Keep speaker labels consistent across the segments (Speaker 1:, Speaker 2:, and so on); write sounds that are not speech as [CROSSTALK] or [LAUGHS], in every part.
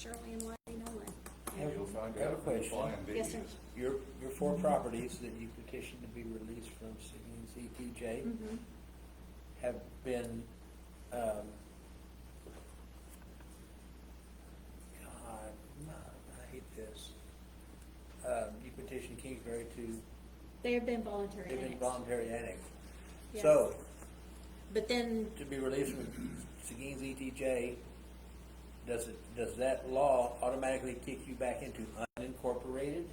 Speaker 1: Shirley and Wiley Nolan.
Speaker 2: You'll find
Speaker 3: I have a
Speaker 2: out. You'll
Speaker 3: question.
Speaker 2: find
Speaker 1: Yes, sir.
Speaker 2: videos.
Speaker 3: Your, your four
Speaker 2: Mm-hmm.
Speaker 3: properties that you petitioned to be released from Cigna's ETJ
Speaker 1: Mhm.
Speaker 3: have been, um, God, no, I hate this. Um, you petitioned Kingsbury to,
Speaker 1: They have been voluntary
Speaker 3: they've been
Speaker 1: annexed.
Speaker 3: voluntary annexed.
Speaker 1: Yes.
Speaker 3: So,
Speaker 1: But then,
Speaker 3: to be released from Cigna's ETJ, does it, does that law automatically kick you back into unincorporated?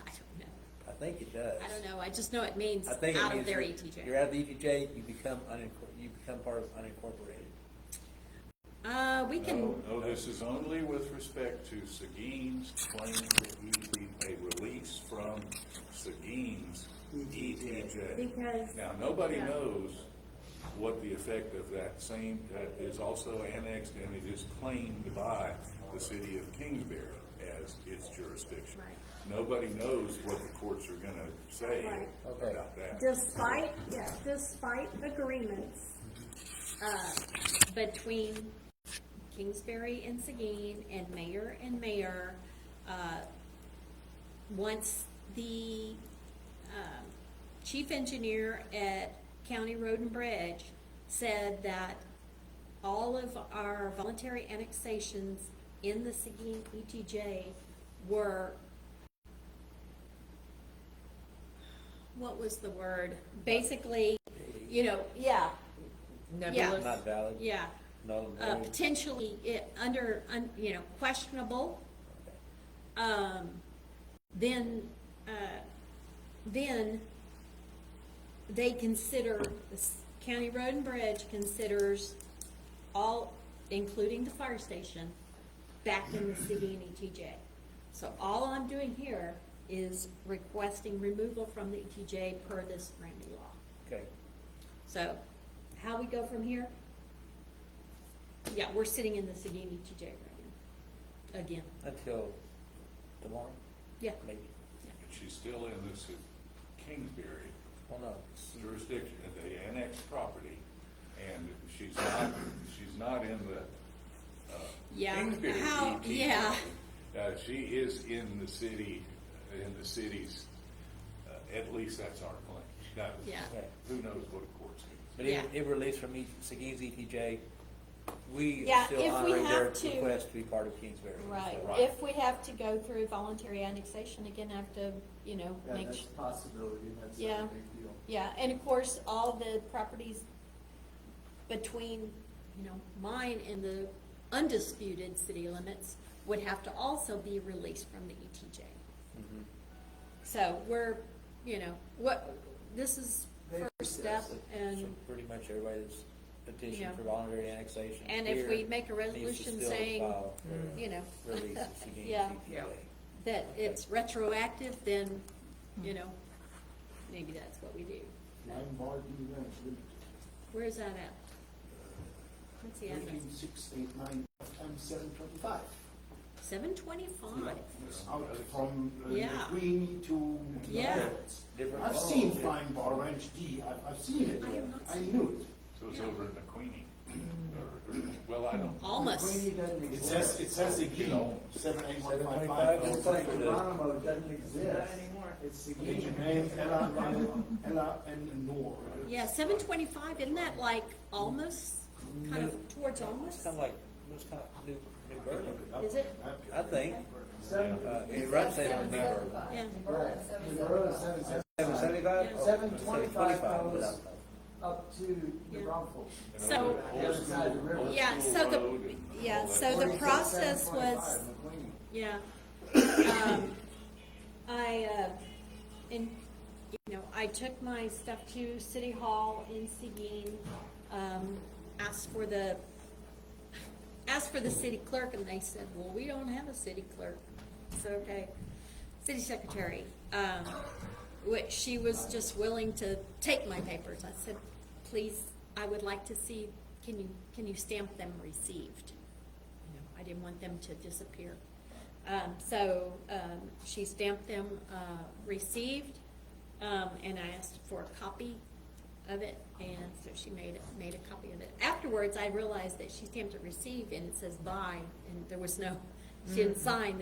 Speaker 1: I don't know.
Speaker 3: I think it does.
Speaker 1: I don't know. I just know it means
Speaker 3: I think it
Speaker 1: out of
Speaker 3: means
Speaker 1: their
Speaker 3: you're-
Speaker 1: ETJ.
Speaker 3: You're out of the ETJ, you become unincor- you become part of unincorporated.
Speaker 1: Uh, we can,
Speaker 2: No, no, this is only with respect to Seguin's claim that he be a release from Seguin's ETJ.
Speaker 1: because
Speaker 2: Now, nobody
Speaker 1: Yeah.
Speaker 2: knows what the effect of that same, that is also annexed and it is claimed by the city of Kingsbury as its jurisdiction.
Speaker 1: Right.
Speaker 2: Nobody knows what the courts are gonna say
Speaker 4: Right.
Speaker 3: Okay.
Speaker 2: about that.
Speaker 4: Despite, yeah, despite agreements,
Speaker 1: uh, between Kingsbury and Seguin and mayor and mayor, uh, once the, um, chief engineer at County Road and Bridge said that all of our voluntary annexations in the Seguin ETJ were, what was the word? Basically, you know, yeah,
Speaker 5: nebulous.
Speaker 3: Not valid.
Speaker 1: yeah,
Speaker 3: Null and
Speaker 1: uh,
Speaker 3: void.
Speaker 1: potentially it, under, un, you know, questionable, um, then, uh, then they consider, the s- county road and bridge considers all, including the fire station, back in the city and ETJ. So all I'm doing here is requesting removal from the ETJ per this brand new law.
Speaker 3: Okay.
Speaker 1: So, how we go from here? Yeah, we're sitting in the Seguin ETJ right now, again,
Speaker 3: Until tomorrow,
Speaker 1: yeah.
Speaker 3: maybe.
Speaker 2: But she's still in this Kingsbury
Speaker 3: Well, no.
Speaker 2: jurisdiction, the annexed property, and she's not, she's not in the, uh,
Speaker 1: Yeah,
Speaker 2: Kingsbury
Speaker 1: how-
Speaker 2: ETJ.
Speaker 1: yeah.
Speaker 2: Uh, she is in the city, in the city's, uh, at least that's our claim. Now,
Speaker 1: Yeah.
Speaker 3: Okay.
Speaker 2: Who knows what a court's going
Speaker 3: But it,
Speaker 1: Yeah.
Speaker 3: it released from E- Seguin's ETJ. We
Speaker 1: Yeah,
Speaker 3: are still
Speaker 1: if we
Speaker 3: honoring their
Speaker 1: have to-
Speaker 3: request to be part of Kingsbury.
Speaker 1: Right,
Speaker 3: So-
Speaker 1: if we have to go through voluntary annexation again, I have to, you know,
Speaker 6: Yeah,
Speaker 1: make,
Speaker 6: that's a possibility, that's
Speaker 1: Yeah.
Speaker 6: not a big deal.
Speaker 1: yeah, and of course, all the properties between, you know, mine and the undisputed city limits would have to also be released from the ETJ.
Speaker 3: Mhm.
Speaker 1: So we're, you know, what, this is first step
Speaker 3: So
Speaker 1: and
Speaker 3: pretty much everybody that's
Speaker 1: Yeah.
Speaker 3: petitioned for voluntary annexation.
Speaker 1: And if
Speaker 3: here
Speaker 1: we make a
Speaker 3: needs to
Speaker 1: resolution
Speaker 3: still
Speaker 1: saying,
Speaker 3: file for
Speaker 1: you know.
Speaker 3: Release of Seguin's
Speaker 1: [LAUGHS]
Speaker 3: E
Speaker 1: Yeah.
Speaker 3: ETJ.
Speaker 1: that it's retroactive, then, you know, maybe that's what we do.
Speaker 6: Lombard, you know,
Speaker 1: Where is that at? What's the address?
Speaker 6: thirteen, six, eight, nine, times seven twenty-five.
Speaker 1: Seven twenty-five.
Speaker 6: It's out from uh,
Speaker 1: Yeah.
Speaker 6: Queenie to.
Speaker 1: Yeah.
Speaker 6: Lawrence.
Speaker 3: Different
Speaker 6: I've
Speaker 3: roads.
Speaker 6: seen fine bar ranch D, I've, I've seen it,
Speaker 1: I have not
Speaker 6: I
Speaker 1: seen
Speaker 6: knew
Speaker 2: to. So it's over in the Queenie, or, or- well, I don't.
Speaker 6: it. Queenie
Speaker 1: Almost.
Speaker 6: doesn't
Speaker 3: It
Speaker 6: exist.
Speaker 3: says-
Speaker 6: it says again, seven, eight, one, five, five.
Speaker 3: It's
Speaker 6: It's
Speaker 3: like
Speaker 6: like
Speaker 3: the-
Speaker 6: Geronimo doesn't exist.
Speaker 5: anymore.
Speaker 6: It's again, and Ella, Ella, Ella, and Nor.
Speaker 1: Yeah, seven twenty-five, isn't that like almost, kind of towards
Speaker 3: It's
Speaker 1: almost?
Speaker 3: kind of like, it's kind of New, New Berlin,
Speaker 1: Is it?
Speaker 3: I think.
Speaker 6: Seven,
Speaker 3: Uh, it runs in New Berlin.
Speaker 1: Yeah,
Speaker 6: Geronimo, seven, seven.
Speaker 3: Seven seventy-five?
Speaker 1: Yeah.
Speaker 6: Seven twenty-five
Speaker 3: Seven
Speaker 6: dollars up to the
Speaker 1: Yeah.
Speaker 6: brothel.
Speaker 2: you
Speaker 1: So-
Speaker 2: know, the old
Speaker 6: The other side of the
Speaker 2: school-
Speaker 6: river.
Speaker 2: old
Speaker 1: Yeah,
Speaker 2: school
Speaker 1: so the-
Speaker 2: road and all
Speaker 1: yeah,
Speaker 2: that
Speaker 1: so the
Speaker 2: stuff.
Speaker 6: Forty-six,
Speaker 1: process
Speaker 6: seven twenty-five,
Speaker 1: was-
Speaker 6: McLean.
Speaker 1: yeah. Um, I, uh, in, you know, I took my stuff to City Hall in Seguin, um, asked for the, asked for the city clerk, and they said, well, we don't have a city clerk. So, okay, city secretary, um, which she was just willing to take my papers. I said, please, I would like to see, can you, can you stamp them received? you know, I didn't want them to disappear. Um, so, um, she stamped them, uh, received, um, and I asked for a copy of it, and so she made, it- made a copy of it. Afterwards, I realized that she stamped it received, and it says by, and there was no, She didn't sign